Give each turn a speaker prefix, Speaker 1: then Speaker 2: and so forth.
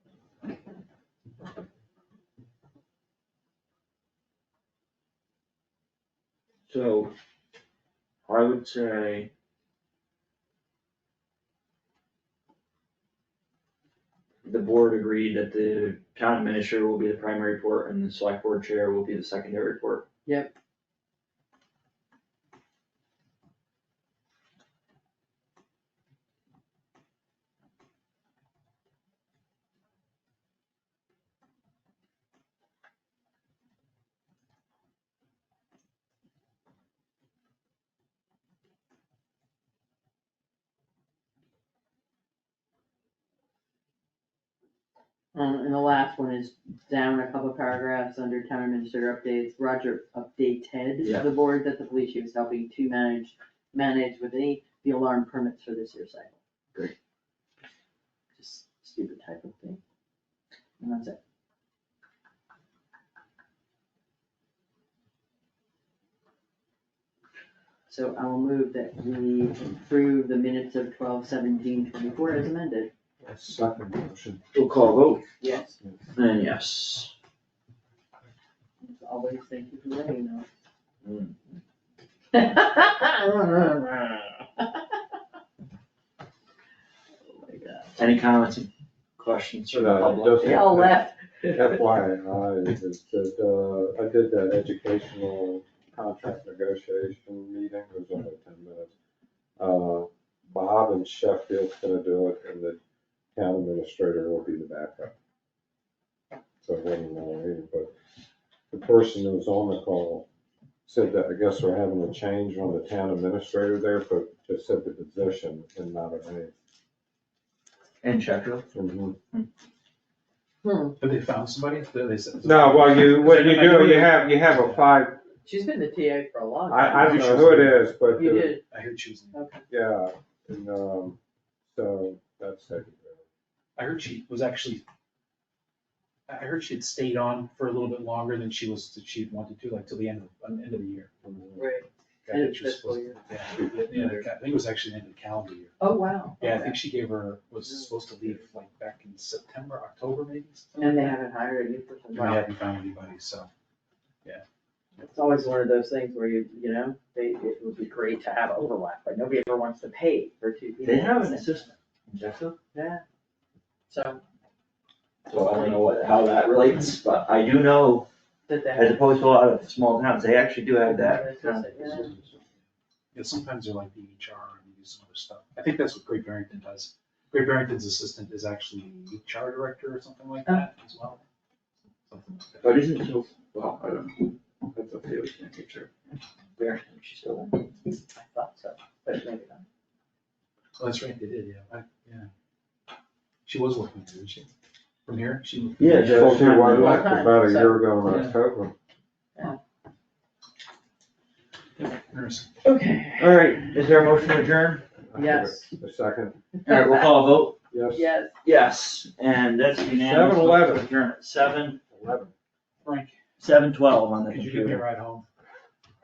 Speaker 1: So I would say. The board agreed that the town administrator will be the primary report and the select board chair will be the secondary report.
Speaker 2: Yep. Um, and the last one is down a couple paragraphs under town administrator updates, Roger updated
Speaker 1: Yeah.
Speaker 2: the board that the police chief is helping to manage, manage with the, the alarm permits for this year's cycle.
Speaker 1: Great.
Speaker 2: Just stupid type of thing. And that's it. So I will move that we approve the minutes of twelve seventeen twenty-four as amended.
Speaker 3: A second motion.
Speaker 1: We'll call vote,
Speaker 2: Yes.
Speaker 1: then yes.
Speaker 2: As Always thank you for letting know.
Speaker 1: Mm.
Speaker 2: Oh my god.
Speaker 1: Any comments and questions from the
Speaker 3: No,
Speaker 1: public?
Speaker 3: it doesn't.
Speaker 2: They all left.
Speaker 3: FYI, I just did, uh, I did that educational contract negotiation meeting, it was only ten minutes. Uh, Bob and Sheffield's gonna do it, and the town administrator will be the backup. So it wasn't long either, but the person who was on the call said that, I guess we're having a change on the town administrator there, but just said the position and not a name.
Speaker 1: And Sheffield?
Speaker 2: Hmm,
Speaker 4: Have they found somebody? They- they said-
Speaker 3: No, well, you, what you do, you have, you have a five,
Speaker 2: she's been the TA for a long time.
Speaker 3: I, I don't know who it is, but,
Speaker 2: You
Speaker 3: the-
Speaker 2: did,
Speaker 4: I heard she was,
Speaker 2: okay.
Speaker 3: yeah, and, um, so, that's taken
Speaker 4: I heard she was actually, I I heard she had stayed on for a little bit longer than she was, that she'd wanted to, like till the end of, uh, end of the year.
Speaker 3: care of.
Speaker 2: Right.
Speaker 4: I think
Speaker 2: End of
Speaker 4: she was
Speaker 2: fiscal
Speaker 4: supposed, yeah, yeah, I think it was actually the end of the calendar year.
Speaker 2: Oh, wow.
Speaker 4: Yeah, I
Speaker 2: okay.
Speaker 4: think she gave her,
Speaker 2: Mm-hmm.
Speaker 4: was supposed to leave like back in September, October maybe?
Speaker 2: And they haven't hired you for some
Speaker 1: Oh,
Speaker 4: I
Speaker 2: time.
Speaker 4: haven't found anybody, so.
Speaker 2: It's always one of those things where you, you know, they, it would be great to have overlap, but nobody ever wants to pay for two people.
Speaker 1: They have an assistant. in Sheffield?
Speaker 2: Yeah. So,
Speaker 1: So I don't know what, how that relates, but I do know,
Speaker 2: that they have.
Speaker 1: as opposed to a lot of small towns, they actually do have that. kind of-
Speaker 2: Yeah.
Speaker 4: Yeah, sometimes they're like the HR and they do some other stuff. I think that's what Great Barrington does. Great Barrington's assistant is actually HR director or something
Speaker 2: Oh.
Speaker 4: like that as well. Something like that.
Speaker 1: But Oh, isn't so, well, I don't know, that's okay, we can take care There, she's still there.
Speaker 2: I thought so, but maybe not.
Speaker 4: Oh, that's right, they did, yeah, I, yeah. She was working there, didn't she? From here, she moved.
Speaker 1: Yeah,
Speaker 3: She was like about a year ago in
Speaker 4: Yeah.
Speaker 3: October.
Speaker 4: Nurse.
Speaker 2: Okay.
Speaker 1: All right, is there a motion to adjourn?
Speaker 2: Yes.
Speaker 3: A second,
Speaker 1: All right, we'll call a vote.
Speaker 3: yes.
Speaker 2: Yes.
Speaker 1: Yes, and that's unanimous.
Speaker 3: 7-Eleven.
Speaker 1: Adjourn at seven,
Speaker 3: Eleven.
Speaker 4: Frank,
Speaker 1: seven twelve on the
Speaker 4: could you give me a
Speaker 1: computer.
Speaker 4: ride home?